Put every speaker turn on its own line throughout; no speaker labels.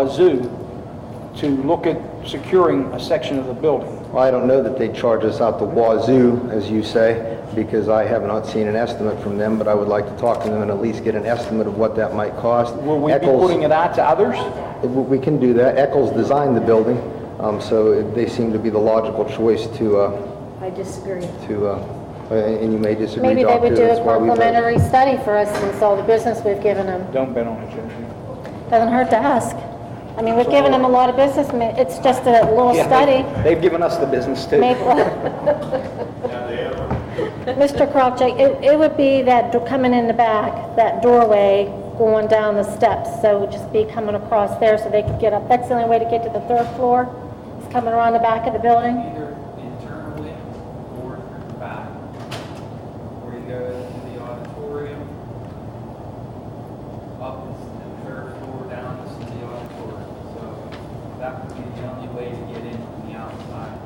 Wazoo to look at securing a section of the building.
Well, I don't know that they charge us out the wazoo, as you say, because I have not seen an estimate from them, but I would like to talk to them and at least get an estimate of what that might cost.
Will we be
Eccles-
putting it out to others?
We can do that. Eccles designed the building, um, so they seem to be the logical choice to, uh,
I disagree.
to, uh, and you may disagree,
Maybe
Doctor.
they would do a
that's why we vote.
complimentary study for us since all the business we've given them.
Don't bet on it, Joe.
Doesn't hurt to ask. I mean, we've given them a lot of business, ma- it's just a little
Yeah,
study.
they- They've given us the business too.
Maybe- Mr. Krawcheck, it, it would be that, do- coming in the back, that doorway going down the steps, so it would just be coming across there so they could get up. That's the only way to get to the third floor, is coming around the back of the building.
either internally or through the back. Or you go to the auditorium, up is the third floor, down is the auditorium. So that would be the only way to get in from the outside.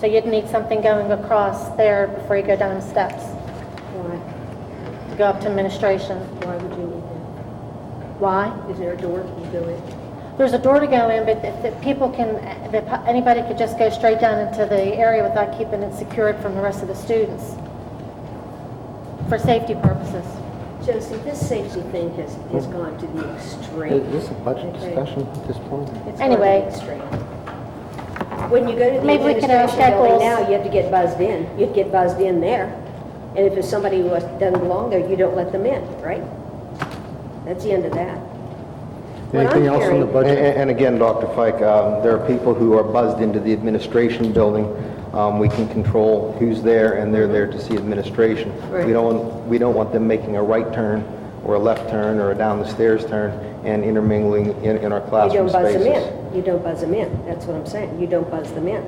So you'd need something going across there before you go down the steps,
Why?
to go up to administration.
Why would you need
Why?
that? Is there a door to go in?
There's a door to go in, but if, if people can, if anybody could just go straight down into the area without keeping it secured from the rest of the students, for safety purposes.
Josie, this safety thing has, has gone to the extreme.
Oh. Is this a budget
Okay.
discussion at this point?
It's gone to the
Anyway.
extreme. When you go to the
Maybe we could ask
administration building
Eccles.
now, you have to get buzzed in. You'd get buzzed in there. And if it's somebody who was- doesn't belong there, you don't let them in, right? That's the end of that. What I'm
Anything else on the
hearing-
And,
budget?
and again, Dr. Fike, um, there are people who are buzzed into the administration building. Um, we can control who's there, and they're there to see administration.
Right.
We don't, we don't want them making a right turn, or a left turn, or a down the stairs turn, and intermingling in, in our
You
classroom
don't buzz
spaces.
them in. You don't buzz them in. That's what I'm saying. You don't buzz them in.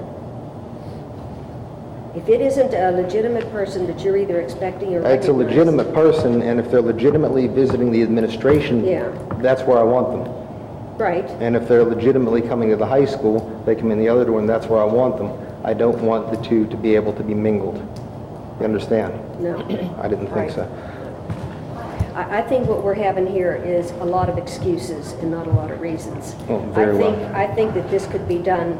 If it isn't a legitimate person that you're either expecting or
It's a
recognizing-
legitimate person, and if they're legitimately visiting the administration,
Yeah.
that's where I want them.
Right.
And if they're legitimately coming to the high school, they come in the other door, and that's where I want them. I don't want the two to be able to be mingled. You understand?
No.
I didn't think
Right.
so.
I, I think what we're having here is a lot of excuses and not a lot of reasons.
Oh, very well.
I think, I think that this could be done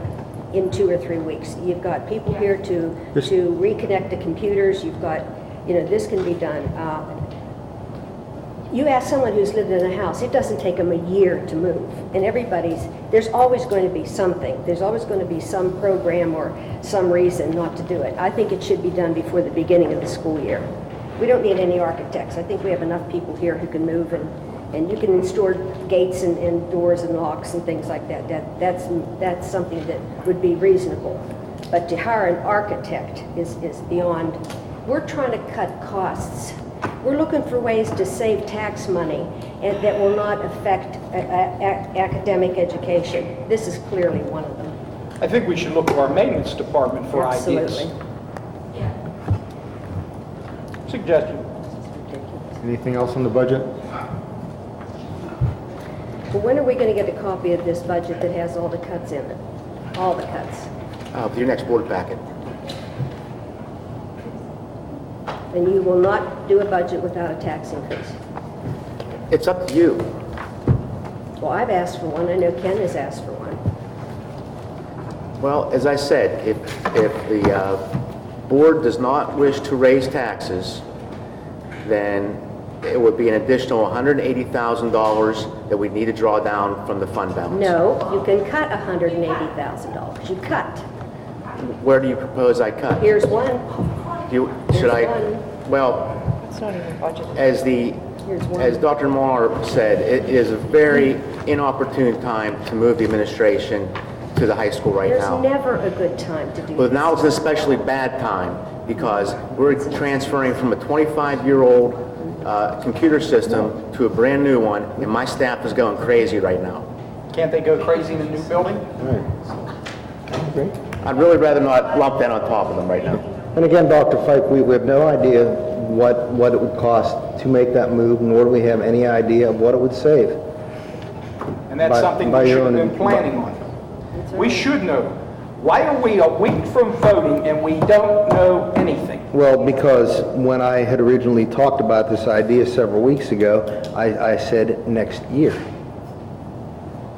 in two or three weeks. You've got people here to,
This-
to reconnect the computers, you've got, you know, this can be done. Uh, You ask someone who's lived in a house, it doesn't take them a year to move. And everybody's, there's always going to be something. There's always going to be some program or some reason not to do it. I think it should be done before the beginning of the school year. We don't need any architects. I think we have enough people here who can move and, and you can install gates and, and doors and locks and things like that. That, that's, that's something that would be reasonable. But to hire an architect is, is beyond, we're trying to cut costs. We're looking for ways to save tax money and that will not affect a- a- a- academic education. This is clearly one of them.
I think we should look to our maintenance department for ideas.
Absolutely.
Suggestion.
Anything else on the budget?
Well, when are we going to get a copy of this budget that has all the cuts in it? All the cuts?
Uh, For your next board packet.
And you will not do a budget without a tax increase.
It's up to you.
Well, I've asked for one. I know Ken has asked for one.
Well, as I said, if, if the uh, board does not wish to raise taxes, then it would be an additional $180,000 that we need to draw down from the fund balance.
No, you can cut $180,000. You cut.
Where do you propose I cut?
Here's one.
Do you, should I?
There's one.
Well. As the,
Here's one.
as Dr. Moore said, it is a very inopportune time to move the administration to the high school right
There's
now.
never a good time to do
Well,
this.
now it's an especially bad time because we're transferring from a 25-year-old uh, computer system to a brand-new one, and my staff is going crazy right now.
Can't they go crazy in a new building?
I'd really rather not lump that on top of them right now.
And again, Dr. Fike, we we have no idea what, what it would cost to make that move, nor do we have any idea of what it would save.
And that's
By-
something
by
we
your
should have
own-
been planning on. We should know. Why are we a week from voting and we don't know anything?
Well, because when I had originally talked about this idea several weeks ago, I, I said next year.